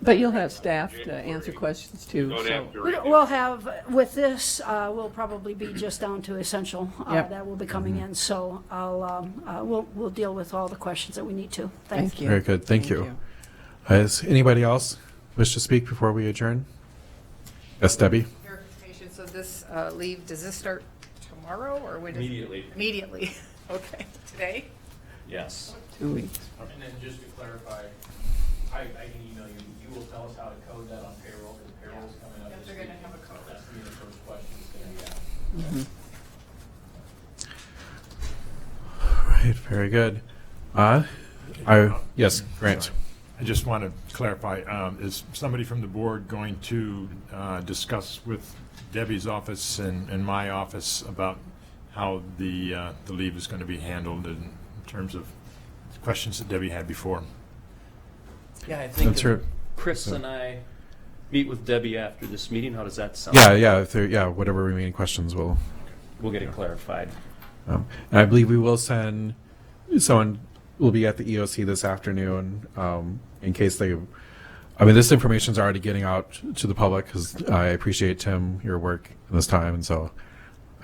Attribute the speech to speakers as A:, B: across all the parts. A: But you'll have staff to answer questions too,
B: Don't
A: so.
B: have to
C: We-
B: read it.
C: We'll have, with this, uh, we'll probably be just down to essential. uh,
A: Yep.
C: That will be coming in, so I'll, um, uh, we'll, we'll deal with all the questions that we need to. Thank
A: Thank
C: you.
A: you.
D: Very good, thank you. Has anybody else wish to speak before we adjourn? Yes, Debbie?
E: Clarification, so this uh, leave, does this start tomorrow, or when? is it-
F: Immediately.
E: Immediately, okay, today?
F: Yes.
A: Two weeks.
G: And then just to clarify, I, I can email you, you will tell us how to code that on payroll, because payroll's coming up this
E: They're
G: week.
E: gonna have a code.
G: That's gonna be the first question that's gonna be asked.
D: All right, very good. Uh, I, yes, Grant?
H: I just want to clarify, um, is somebody from the board going to uh, discuss with Debbie's office and, and my office about how the, uh, the leave is going to be handled in terms of questions that Debbie had before?
F: Yeah, I think
D: That's right.
F: if Chris and I meet with Debbie after this meeting. How does that sound?
D: Yeah, yeah, if there, yeah, whatever remaining questions will,
F: We'll get it clarified.
D: um, and I believe we will send, someone will be at the EOC this afternoon, um, in case they, I mean, this information's already getting out to the public, because I appreciate, Tim, your work in this time, and so,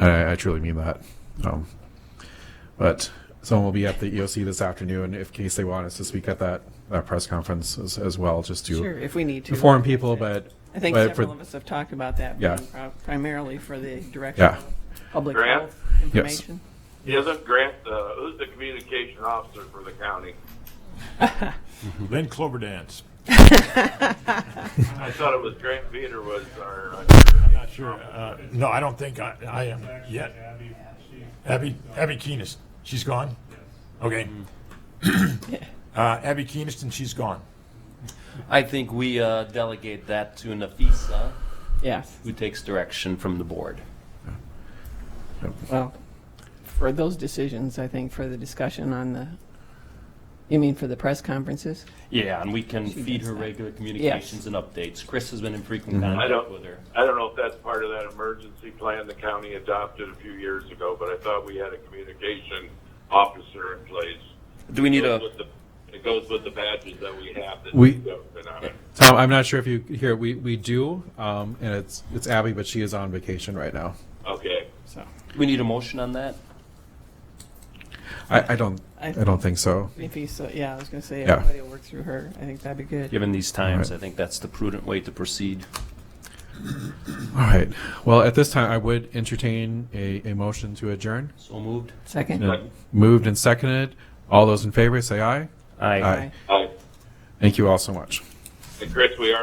D: I, I truly mean that. Um, But someone will be at the EOC this afternoon if case they want us to speak at that, that press conference as, as well, just
A: Sure,
D: to
A: if we need to.
D: inform people, but.
A: I think
D: but for-
A: several of us have talked about that.
D: Yeah.
A: being pri- Primarily for the direction
D: Yeah.
A: of public
B: Grant?
A: health information.
B: Isn't Grant, uh, who's the communication officer for the county?
H: Lynn Cloverdance.
B: I thought it was Grant Peter was our, uh,
H: I'm not sure, uh, no, I don't think I, I am yet. Abby, Abby Keenest, she's gone? Okay. Uh, Abby Keenest and she's gone.
F: I think we uh, delegate that to Nafisa,
A: Yes,
F: who takes direction from the board.
A: well, for those decisions, I think for the discussion on the, you mean for the press conferences?
F: Yeah, and we can feed
A: does
F: her
A: that.
F: regular communications and updates. Chris has been in frequent
D: Mm-hmm.
B: I
F: contact
B: don't-
F: with her.
B: I don't know if that's part of that emergency plan the county adopted a few years ago, but I thought we had a communication officer in place.
F: Do we need a?
B: With the- It goes with the badges that we have. that
D: We-
B: do government on it.
D: Tom, I'm not sure if you hear, we, we do, um, and it's, it's Abby, but she is on vacation right now.
B: Okay.
A: So,
F: Do we need a motion on that?
D: I, I don't,
A: I-
D: I don't think so.
A: if you, so, yeah, I was gonna say,
D: Yeah.
A: everybody will work through her, I think that'd be good.
F: Given these times,
D: All
F: I think that's the prudent way to proceed.
D: All right. Well, at this time, I would entertain a, a motion to adjourn.
F: So moved.
A: Second?
D: Moved and seconded. All those in favor, say aye.
F: Aye.
A: Aye.
B: Hi.
D: Thank you all so much.
B: And Chris, we are